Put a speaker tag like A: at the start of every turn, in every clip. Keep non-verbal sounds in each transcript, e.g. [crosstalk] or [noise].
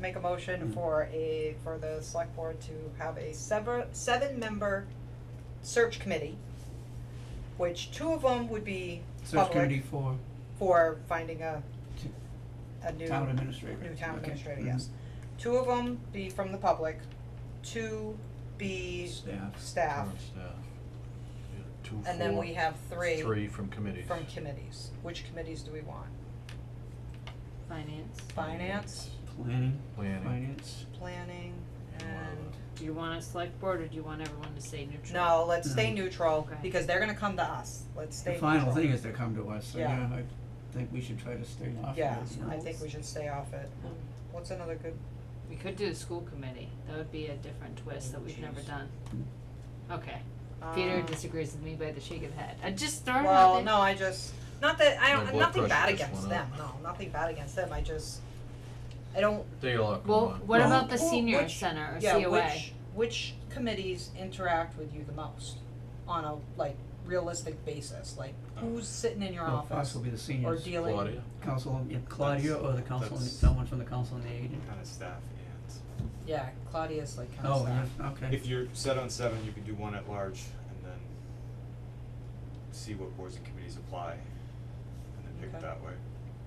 A: make a
B: Hmm.
A: motion for a, for the select board to have a sever, seven-member search committee, which two of them would be
B: Search committee
A: public
B: for
A: for finding a, a new.
B: town administrator.
A: New town
B: Okay.
A: administrator,
B: Mhm.
A: yes. Two of them be from the public, two be
C: Staff.
A: staff,
C: Current staff. Yeah, Two,
A: and then
C: four-
A: we have three
C: Three from committees.
A: from committees. Which committees do we want?
D: Finance.
A: Finance,
B: Planning,
C: Planning.
B: finance,
A: planning,
C: And one
A: and,
D: Do you want a select board or do you want everyone to stay neutral?
A: no, let's stay neutral,
D: Okay.
A: because they're gonna come to us, let's stay
B: Hmm. the
A: neutral.
B: final thing is to come to us, so yeah,
A: Yeah.
B: I think we should try to stay off of it.
A: Yeah,
B: you know.
A: I think we should stay off it.
D: Um,
A: What's another good,
D: We could do a school committee, that would be a different twist that we've never
B: Jeez.
D: done. Okay,
A: um,
D: Peter disagrees with me by the shake of the head, I just started
A: well, no, I just, not that, I
C: My
A: don't,
C: blood
A: nothing
C: pressure
A: bad
C: just
A: against
C: went
A: them,
C: up.
A: no, nothing bad against them, I just, I don't,
C: They all come
D: Well,
C: on.
D: what
B: Well,
D: about the
A: Well,
D: senior
A: which-
D: center or
A: yeah,
D: COA?
A: which, which committees interact with you the most on a, like, realistic basis, like, who's sitting in your
B: Well,
A: office
B: possibly the
A: or
B: seniors,
A: dealing?
C: Oh. Claudia,
B: council, yeah, Claudia or the council,
E: that's-
B: someone from the council and the aid.
E: Kind of staff and.
A: Yeah, Claudia's like kinda
B: Oh,
A: sad.
B: yeah, okay.
E: If you're set on seven, you can do one at large and then see what boards and committees apply and then pick
A: Okay.
E: it that way.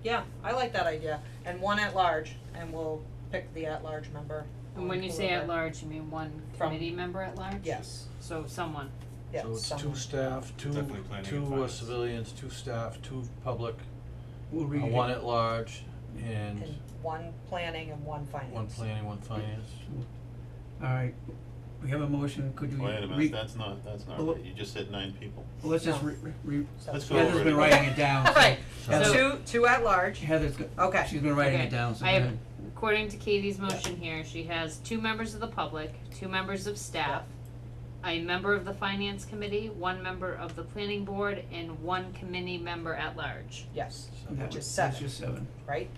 A: Yeah, I like that idea, and one at large, and we'll pick the at-large member.
D: And when you say
A: whoever-
D: at large, you mean one
A: From-
D: committee member at large?
A: Yes,
D: So someone,
A: yeah,
C: so it's two
A: someone.
C: staff, two,
E: Definitely planning and
C: two uh,
E: finance.
C: civilians, two staff, two public,
B: We'll
C: uh,
B: read it.
C: one at large, and
A: And one planning and one finance.
C: one planning, one finance.
B: Alright, we have a motion, could you
F: Wait a
B: re-
F: minute, that's not, that's not
B: Well,
F: right, you just said nine people.
B: well, let's just
A: No.
B: re- re- re-
A: So-
F: Let's go
B: Heather's
F: over it.
B: been writing it down, so-
A: [laughs] Right,
B: Yeah.
A: so two, two at-large,
B: Heather's, go-
A: okay,
B: she's been writing
D: Okay,
B: it down, so
D: I have-
B: then-
D: according to Katie's motion here, she has two members of the public, two members of staff, a member of the finance committee, one member of the planning board, and one committee member at large.
A: yes,
C: So-
B: that
A: Which
B: was-
A: is
B: that's
A: seven.
B: just seven.
A: right?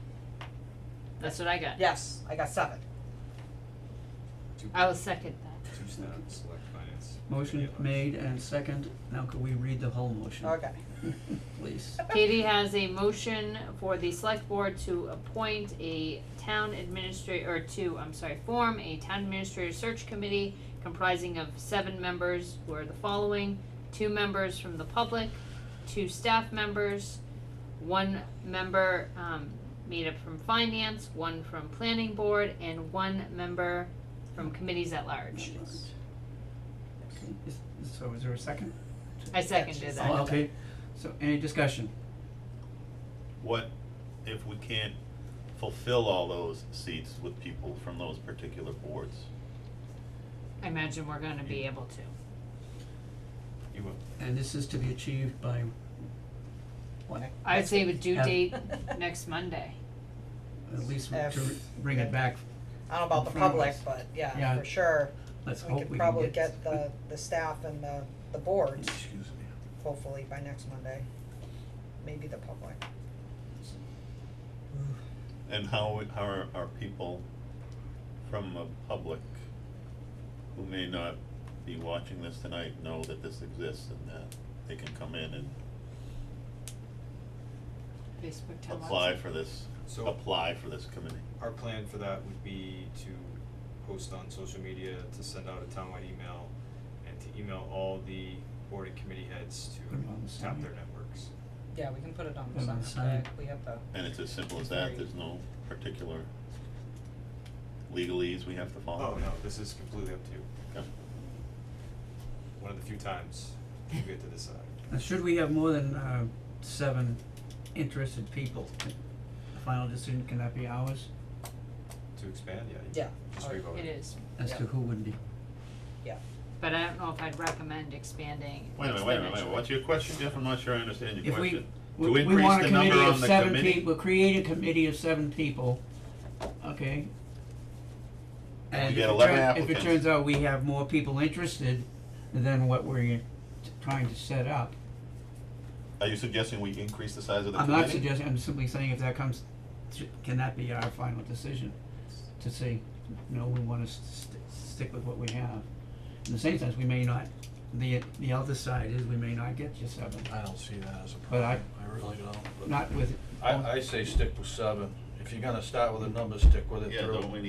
D: That's what I got.
A: Yes, I got seven.
E: Two,
D: I will second that.
E: two staff, select finance. committee
B: Motion
E: at large.
B: made and second, now could we read the whole motion?
A: Okay.
B: [laughs] Please.
D: Katie has a motion for the select board to appoint a town administrator, or to, I'm sorry, form a town administrator search committee comprising of seven members who are the following, two members from the public, two staff members, one member, um, made up from finance, one from planning board, and one member from committees at large.
B: Okay, is- So is there a second?
D: I seconded
B: Oh,
D: that.
B: okay, so any discussion?
F: What if we can't fulfill all those seats with people from those particular boards?
D: I imagine we're gonna be able to.
E: You will.
B: And this is to be achieved by what,
D: I'd say with due
B: Have-
D: date next Monday.
B: at least
A: F.
B: to bring it back,
A: I don't know about the public, but yeah,
B: Yeah.
A: for sure,
B: let's
A: we
B: hope
A: could
B: we can
A: probably
B: get.
A: get the, the staff and the, the boards,
C: Excuse me.
A: hopefully by next Monday, maybe the public.
F: And how, how are, are people from the public who may not be watching this tonight know that this exists and that they can come in and
D: Facebook tell us.
F: apply for this,
E: So-
F: apply for this committee?
E: Our plan for that would be to post on social media, to send out a townwide email, and to email all the board and committee heads
B: Put 'em on the
E: to tap
B: side.
E: their networks.
A: Yeah, we can put it on
B: Put it on
A: the
B: the
A: sign,
B: sign.
A: we have the,
F: And it's as simple as that, there's no particular legalese we have to follow?
E: Oh, no, this is completely up to you.
F: Okay.
E: One of the few times you get to decide.
B: Now, should we have more than uh seven interested people, the final decision can that be ours
E: To expand, yeah, you
A: yeah,
E: just
A: or-
E: revote
D: It is,
B: as to
A: Yeah.
B: who would be?
D: but I don't know if I'd recommend expanding
F: Wait a minute, wait a minute, wait a minute,
D: exponentially.
F: what's your question, Jeff? I'm not sure I understand your
B: If we-
F: question.
B: We
F: To
B: we
F: increase
B: want a
F: the number
B: committee of
F: on the
B: seven
F: committee?
B: people, create a committee of seven people, okay? And
F: get
B: if it
F: 11
B: turn- if it
F: applicants.
B: turns out we have more people interested than what we're t- trying to set up,
F: Are you suggesting we increase the size of the
B: I'm
F: committee?
B: not suggesting, I'm simply saying if that comes, sh- can that be our final decision? To say, no, we wanna st- stick with what we have. In the same sense, we may not, the, the other side is we may not get you seven,
C: I don't see that as a
B: But I-
C: problem, I really don't, but-
B: not with.
C: I, I say stick with seven, if you're gonna start with a number, stick with it
F: Yeah,
C: through.
F: don't we need